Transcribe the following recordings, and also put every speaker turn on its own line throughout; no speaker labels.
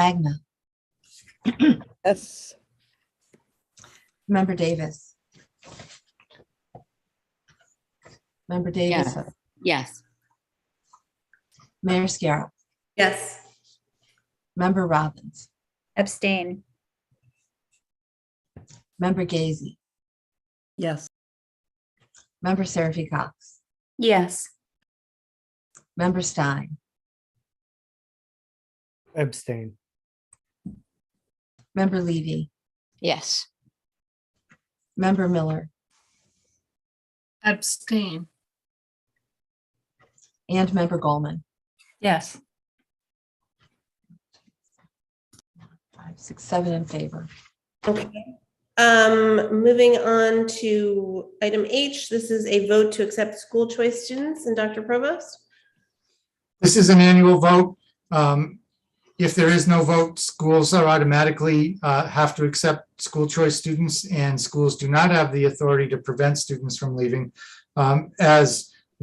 Magna.
Yes.
Member Davis. Member Davis,
Yes. Yes.
Mayor Scarrow,
Yes.
Member Robbins,
abstain,
Member Gazy,
Yes.
Member Seraphy Cox,
Yes.
Member Stein,
abstain,
Member Levy,
Yes.
Member Miller,
Abstain.
and Member Goldman.
Yes.
Five, six, seven in favor.
Okay. Um, moving on to item H, this is a vote to accept school choice students and Dr. Provost.
This is an annual vote. Um, If there is no vote, schools are automatically uh, have to accept school choice students, and schools do not have the authority to prevent students from leaving. Um, As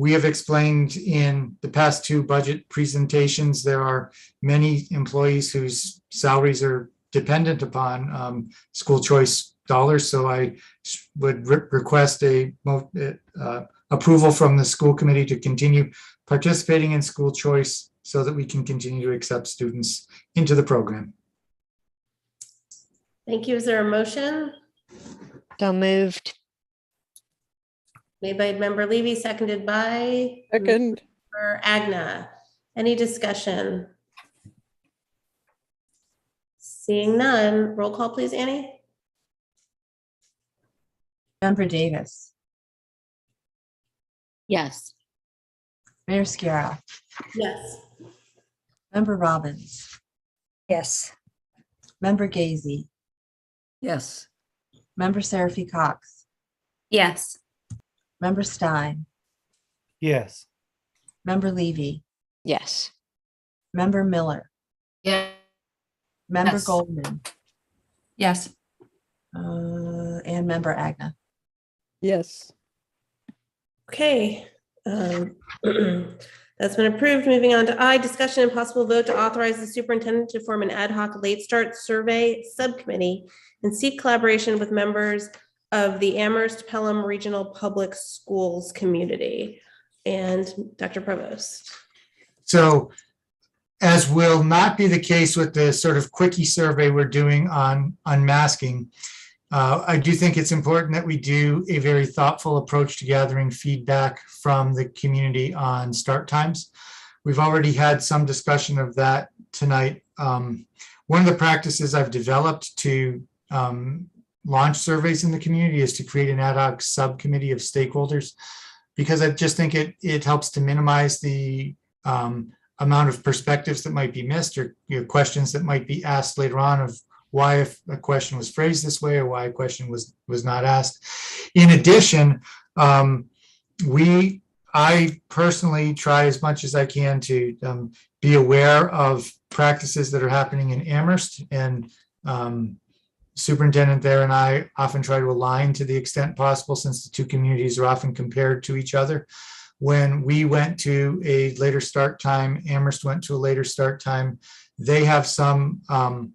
we have explained in the past two budget presentations, there are many employees whose salaries are dependent upon um, school choice dollars. So I s- would re- request a mo- uh, approval from the school committee to continue participating in school choice so that we can continue to accept students into the program.
Thank you. Is there a motion
So moved.
made by member Levy, seconded by
Second.
member Agna? Any discussion? Seeing none, roll call please, Annie?
Member Davis,
Yes.
Mayor Scarrow,
Yes.
Member Robbins,
yes.
Member Gazy,
Yes.
Member Seraphy Cox,
Yes.
Member Stein,
yes,
Member Levy,
Yes.
Member Miller,
Yeah.
Member
Yes.
Goldman,
Yes.
uh, and Member Agna.
Yes.
Okay. um, That's been approved. Moving on to I, discussion and possible vote to authorize the superintendent to form an ad hoc late start survey subcommittee and seek collaboration with members of the Amherst Pelham Regional Public Schools community. And Dr. Provost.
So as will not be the case with the sort of quickie survey we're doing on unmasking, uh, I do think it's important that we do a very thoughtful approach to gathering feedback from the community on start times. We've already had some discussion of that tonight. Um, One of the practices I've developed to um, launch surveys in the community is to create an ad hoc subcommittee of stakeholders because I just think it, it helps to minimize the um, amount of perspectives that might be missed or you know, questions that might be asked later on of why if a question was phrased this way or why a question was was not asked. In addition, um, we I personally try as much as I can to um, be aware of practices that are happening in Amherst and um, superintendent there and I often try to align to the extent possible since the two communities are often compared to each other when we went to a later start time, Amherst went to a later start time. They have some um,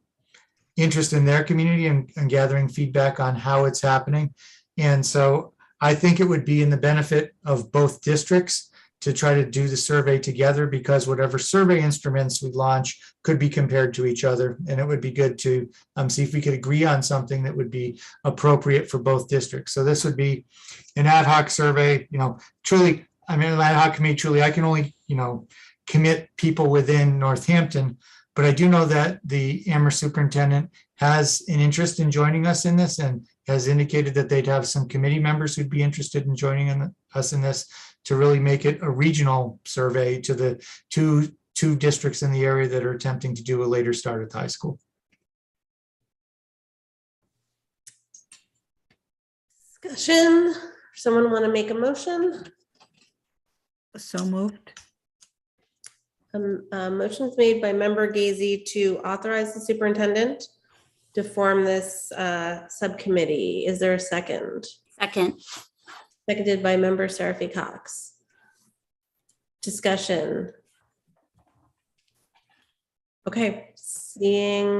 interest in their community and, and gathering feedback on how it's happening. And so I think it would be in the benefit of both districts to try to do the survey together because whatever survey instruments we launch could be compared to each other. And it would be good to um, see if we could agree on something that would be appropriate for both districts. So this would be an ad hoc survey, you know, truly I mean, ad hoc committee, truly, I can only, you know, commit people within Northampton. But I do know that the Amherst superintendent has an interest in joining us in this and has indicated that they'd have some committee members who'd be interested in joining in- us in this to really make it a regional survey to the two, two districts in the area that are attempting to do a later start at the high school.
Discussion. Someone want to make a motion?
So moved.
Um, uh, motions made by member Gazy to authorize the superintendent to form this uh, subcommittee. Is there a second?
Second.
Seconded by member Seraphy Cox. Discussion. Okay, seeing